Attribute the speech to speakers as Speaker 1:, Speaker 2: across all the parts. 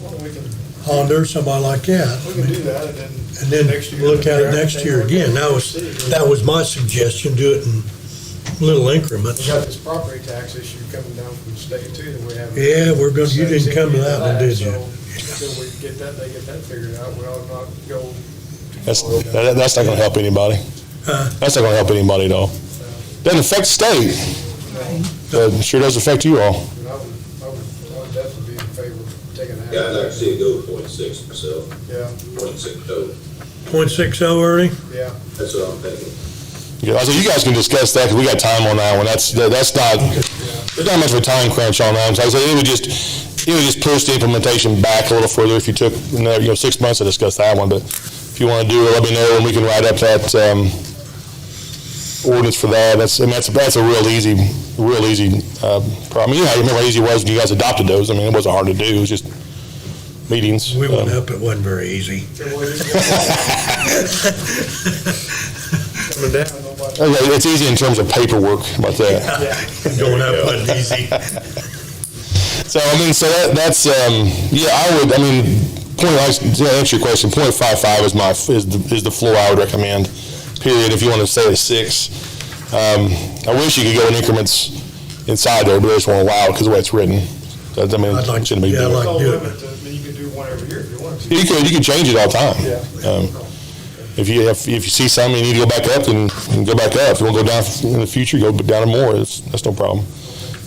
Speaker 1: we can,
Speaker 2: Honda or somebody like
Speaker 1: we
Speaker 2: that.
Speaker 1: can do that and then.
Speaker 2: And then
Speaker 1: next year,
Speaker 2: look at it
Speaker 1: if
Speaker 2: next year
Speaker 1: everything
Speaker 2: again. That
Speaker 1: works
Speaker 2: was,
Speaker 1: out, we'll see.
Speaker 2: that was my suggestion, do it in little
Speaker 1: We
Speaker 2: increments.
Speaker 1: got this property tax issue coming down from the state too that we haven't.
Speaker 2: Yeah, we're gonna, you didn't come to that one, did
Speaker 1: So,
Speaker 2: you?
Speaker 1: Until we get that, they get that figured out, we ought not go. too
Speaker 3: That's,
Speaker 1: far down.
Speaker 3: that, that's not gonna help anybody.
Speaker 2: Huh?
Speaker 3: That's not gonna help anybody at all. Doesn't affect state, but it sure does affect you
Speaker 1: But I
Speaker 3: all.
Speaker 1: would, I would, I would definitely be in favor of taking that.
Speaker 4: Yeah, I'd like to see it go to point six myself,
Speaker 1: Yeah,
Speaker 4: point six total.
Speaker 2: Point six oh, Ernie?
Speaker 1: yeah,
Speaker 4: That's what I'm thinking.
Speaker 3: Yeah, I said, you guys can discuss that, because we got time on that one, that's, that- that's not, there's not much of a time crunch on that, one. so I said, it would just, it would just push the implementation back a little further if you took, you know, you know, six months to discuss that one, but if you want to do it, let me know, and we can write up that, um, ordinance for that, that's, and that's, that's a real easy, real easy, uh, problem, you know, I remember how easy it was when you guys adopted those, I mean, it wasn't hard to do, it was just meetings.
Speaker 2: We went
Speaker 3: Um,
Speaker 2: up, it wasn't very easy.
Speaker 1: It wasn't- coming down, nobody,
Speaker 3: okay, It's easy in terms of paperwork, about that.
Speaker 1: yeah.
Speaker 2: Going up wasn't easy.
Speaker 3: So I mean, so that, that's um, yeah. I would. I mean, point like to answer your question, point five five is my is the, is the floor I would recommend. Period. If you want to say at six, um, I wish you could go in increments inside there, but they just won't allow it because the way it's written. So, I mean,
Speaker 2: I'd like-
Speaker 3: it shouldn't be.
Speaker 2: yeah, I'd
Speaker 3: doing it.
Speaker 1: It's
Speaker 2: like-
Speaker 1: all
Speaker 2: do it.
Speaker 1: limited, to- I mean, you can do one every year if you want to.
Speaker 3: you could you could change it all the time.
Speaker 1: Yeah.
Speaker 3: Um, if you if, if you see something you need to go back up, then, then go back up. If you want to go down in the future, go down more. It's, that's no problem.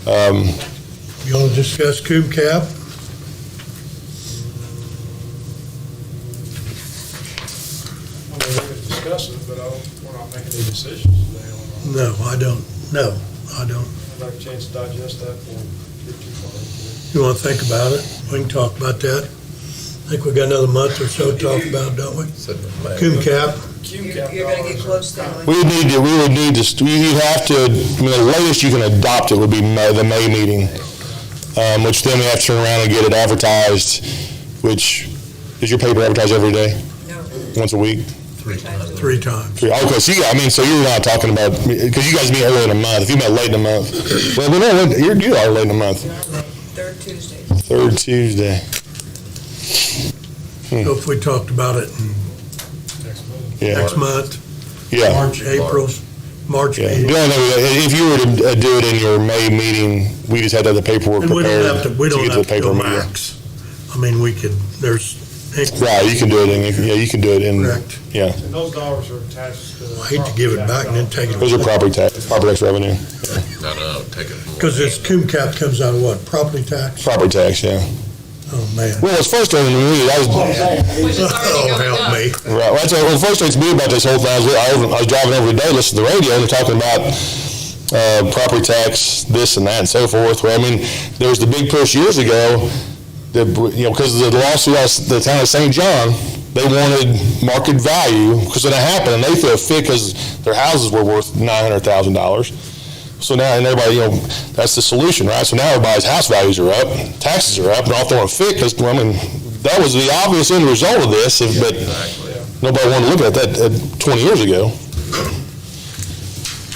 Speaker 3: Um,
Speaker 2: You wanna discuss coop cap?
Speaker 1: Well, We're going to discuss it, but I don't, we're not making any decisions today on it.
Speaker 2: No, I don't, no, I don't.
Speaker 1: I'd like a chance to digest that before we get too far. into
Speaker 2: You wanna think about it? We can talk about that. I think we got another month or so to talk about, don't we? Coop
Speaker 1: it.
Speaker 2: cap,
Speaker 5: You're
Speaker 1: Cube cap
Speaker 5: you're gonna get
Speaker 1: dollars are-
Speaker 5: close to it.
Speaker 3: We would need to, we would need to, you have to, I mean, the latest you can adopt it would be May- the May meeting, um, which then we have to turn around and get it advertised, which, is your paper advertised every day,
Speaker 5: No,
Speaker 3: once a week?
Speaker 2: three times.
Speaker 3: Three- Okay, so you, I mean, so you're not talking about, because you guys meet early in the month, if you met late in the month, well, but no, you're, you are late in the month,
Speaker 5: third Tuesday.
Speaker 3: third Tuesday,
Speaker 2: So if we talked about it
Speaker 1: Next month.
Speaker 3: Hmm. yeah,
Speaker 2: next month,
Speaker 3: yeah.
Speaker 2: March, April's, March
Speaker 3: Yeah,
Speaker 2: meeting.
Speaker 3: the only thing, we- if you were to uh, do it in your May meeting, we just had to have the paperwork
Speaker 2: And we don't have
Speaker 3: prepared
Speaker 2: to,
Speaker 3: to
Speaker 2: we don't
Speaker 3: get to
Speaker 2: have to
Speaker 3: the paper
Speaker 2: go
Speaker 3: meeting.
Speaker 2: max. I mean, we could, there's.
Speaker 3: Right, you can do it in, yeah, you can do it in,
Speaker 2: Correct.
Speaker 3: yeah.
Speaker 1: And those dollars are attached to. the
Speaker 2: I hate to give it
Speaker 1: property
Speaker 2: back and then
Speaker 1: tax
Speaker 2: take it
Speaker 1: dollars.
Speaker 3: Those are property tax, property tax revenue,
Speaker 6: No, no, take it.
Speaker 2: Because this coom cap comes out of what, property tax?
Speaker 3: property tax, yeah.
Speaker 2: Oh, man.
Speaker 3: Well, it's frustrating to me, I was, right,
Speaker 7: Which is already
Speaker 2: Oh,
Speaker 7: going
Speaker 2: help
Speaker 7: up.
Speaker 2: me.
Speaker 3: well, that's, what frustrates me about this whole thing, is I was, I was driving over today, listening to the radio, and they're talking about, uh, property tax, this and that and so forth, where, I mean, there was the big push years ago, that, you know, because of the lawsuit, out of the town of St. John, they wanted market value, because when it happened, and they threw a fit, because their houses were worth nine hundred thousand dollars. So now, and everybody, you know, that's the solution, right? So now everybody's house values are up, taxes are up, and all throwing a fit because, I mean, that was the obvious end result of this, if- but nobody wanted to look at that uh, 20 years ago.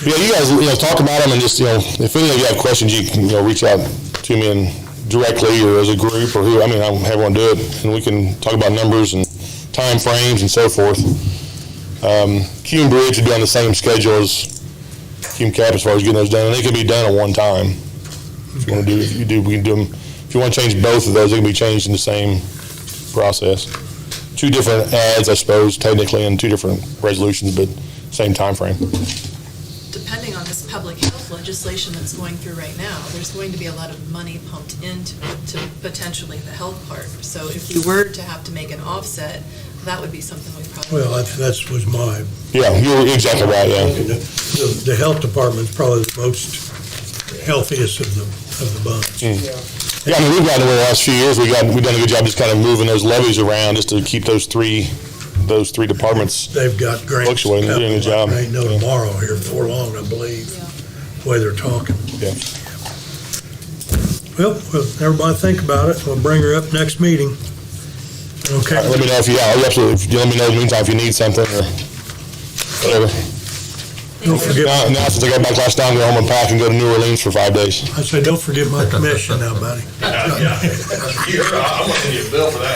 Speaker 3: Yeah, you guys, you know, talk about them and just, you know, if any of you have questions, you can, you know, reach out to me and directly or as a group or who, I mean, I'll have one do it, and we can talk about numbers and time frames and so forth. Um, Cume Bridge would be on the same schedule as Team Cap as far as getting those done, and they can be done at one time. If you want to do, if you do, we can do them, if you want to change both of those, they can be changed in the same process. Two different ads, I suppose, technically, and two different resolutions, but same time frame.
Speaker 7: Depending on this public health legislation that's going through right now, there's going to be a lot of money pumped into to potentially the health part. So if you were to have to make an offset, that would be something we probably.
Speaker 2: Well, that's, that's was my,
Speaker 3: Yeah, you're exactly right, yeah.
Speaker 2: the, the health department's probably the most healthiest of the, of the bunch.
Speaker 3: Yeah, I mean, we've gotten, over the last few years, we got, we've done a good job just kind of moving those levies around, just to keep those three, those three departments
Speaker 2: They've got grants.
Speaker 3: Fluctuating, they're doing a job.
Speaker 2: They know tomorrow here before long, I believe,
Speaker 7: Yeah.
Speaker 2: the way they're talking.
Speaker 3: Yeah.
Speaker 2: Well, well, everybody think about it. We'll bring her up next meeting. Okay.
Speaker 3: Let me know if you, yeah, absolutely, If you let me know in the meantime if you need something or whatever.
Speaker 2: Don't forget,
Speaker 3: Now, now since I got back last night, I'm going home and pack and go to New Orleans for five days.
Speaker 2: I say, don't forget my commission now, buddy.
Speaker 6: I'm gonna get a bill for that.